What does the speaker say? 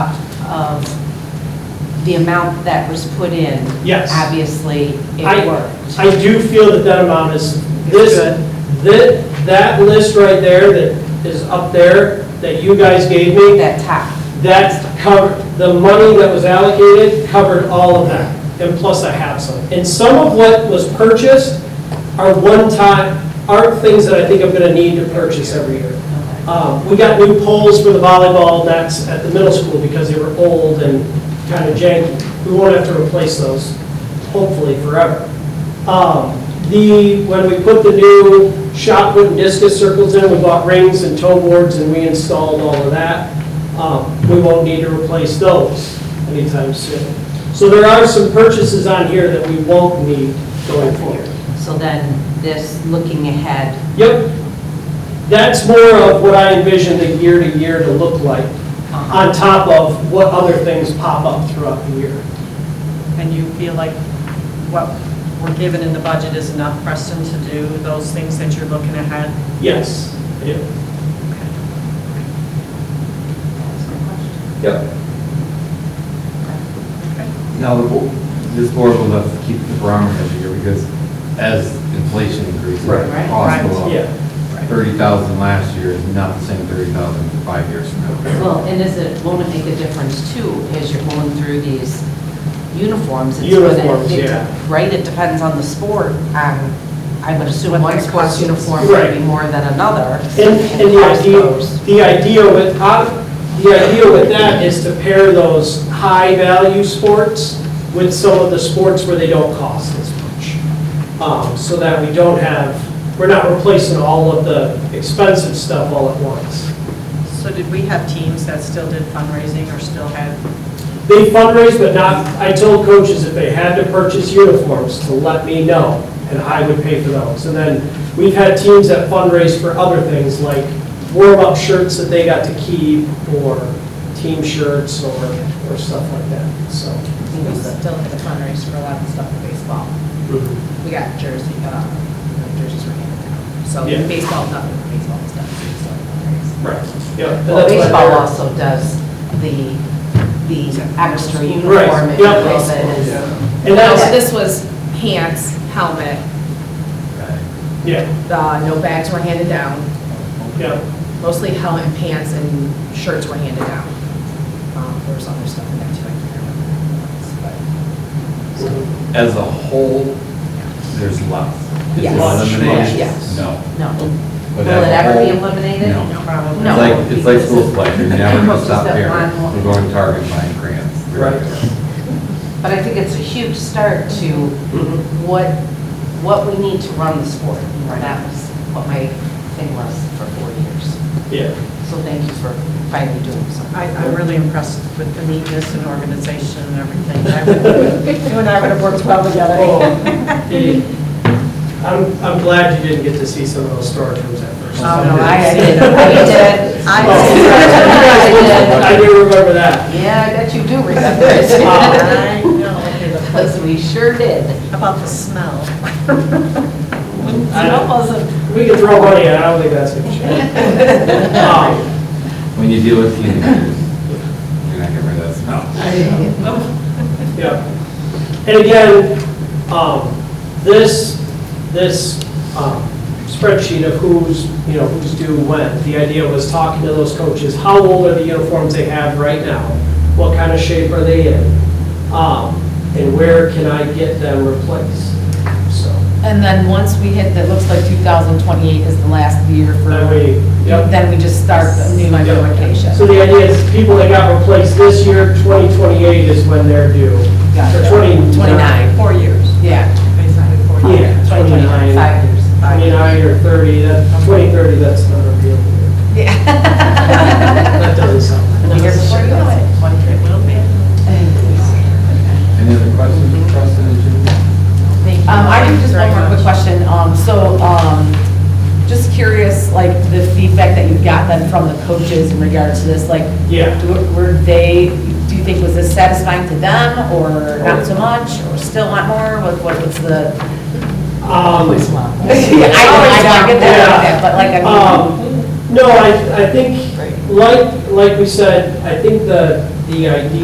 of the amount that was put in. Yes. Obviously, I- it worked. I do feel that that amount is, this, that, that list right there that is up there, that you guys gave me, That top, that covered, the money that was allocated covered all of that, and plus I have some. And some of what was purchased are one-time, aren't things that I think I'm gonna need to purchase every year. Um, We got new poles for the volleyball nets at the middle school because they were old and kind of janky. We won't have to replace those, hopefully forever. Um, The, when we put the new shot put and discus circles in, we bought rings and toe boards and we installed all of that. Um, We won't need to replace those anytime soon. So there are some purchases on here that we won't need going forward. so then this, looking ahead, Yep. That's more of what I envision the year-to-year to look like, uh, on top of what other things pop up throughout the year. Uh, and you feel like what we're given in the budget is enough, Preston, to do those things that you're looking ahead? Yes, I do. Yep. Now, the bo- this board will have to keep the barometer every year because as inflation increases, Right. costs go up. Yeah. Thirty thousand last year is not the same thirty thousand five years from now. well, and is it, won't it make a difference too, as you're going through these uniforms? It's gonna- Uniforms, it- yeah. Right, it depends on the sport, um, I would assume What one their sport's cost is. uniform would be Right. more than another. And, and the cost idea, goes. the idea with, uh, the idea with that is to pair those high-value sports with some of the sports where they don't cost as much. Um, So that we don't have, we're not replacing all of the expensive stuff all at once. So did we have teams that still did fundraising or still had, They fundraise, but not, I told coaches if they had to purchase uniforms, to let me know, and I would pay for those. And then, we've had teams that fundraise for other things, like warm-up shirts that they got to keep, or team shirts, or, or stuff like that, so. We still had a fundraiser for a lot of stuff in baseball. Mm-hmm. We got jersey, uh, jerseys were handed down. So Yeah. baseball, nothing, baseball stuff, still fundraising. Right. Yeah. and Well, that's why baseball they're- also does the, the extra Right, uniform and yeah. all that is. And So that's, this was pants, helmet, yeah, the, no bags were handed down, yeah, mostly helmet and pants and shirts were handed down. Um, There was other stuff in there too, I can't remember. what it was, As a whole, there's less. Is it Yes. eliminated? Yes. No. No. But Will it as a ever be whole, eliminated? No. probably? It's No. like, it's like school supplies, you're never gonna Most stop of there. them on- We're going to Target buying grants. Right. But I think it's a huge start to Mhm. what, what we need to run the sport. And that was what my thing was for four years. yeah. So thank you for finally doing something. I, I'm really impressed with the neatness and organization and everything. I would- You and I would have worked well together. Oh, gee. I'm, I'm glad you didn't get to see some of those storage rooms at first. Oh, no, I did. I did. I I Oh. I did. do remember that. Yeah, I bet you do remember it. I know. Because we sure did. About the smell. I Smell don't- wasn't. We can throw money at it, I don't think that's gonna change. Oh. Um, When you deal with teenagers, you're not getting rid of that smell. Yeah. And again, um, this, this um, spreadsheet of who's, you know, who's due when, the idea was talking to those coaches, how old are the uniforms they have right now? What kind of shape are they in? Um, And where can I get them replaced? So, And then once we hit, that looks like 2028 is the last year for, that way, yep. then we just start the new implementation. So the idea is people that got replaced this year, 2028 is when they're due. Or Gotcha. 29. 29. Four years, Yeah, basically four years. Yeah, 29, five years. 29 or 30, that, 2030, that's not a real year. That doesn't sound. Year before you know it. One trip will be. Any other questions for Preston and Jim? Um, I do just one more quick question. Um, so, um, just curious, like, the feedback that you got then from the coaches in regards to this, like, Yeah, do- were they, do you think was this satisfying to them, or not so much, or still want more? What, what was the? um, I know, I know, Um, I get that, but like, I mean. um, no, I, I think, like, like we said, I think the, the idea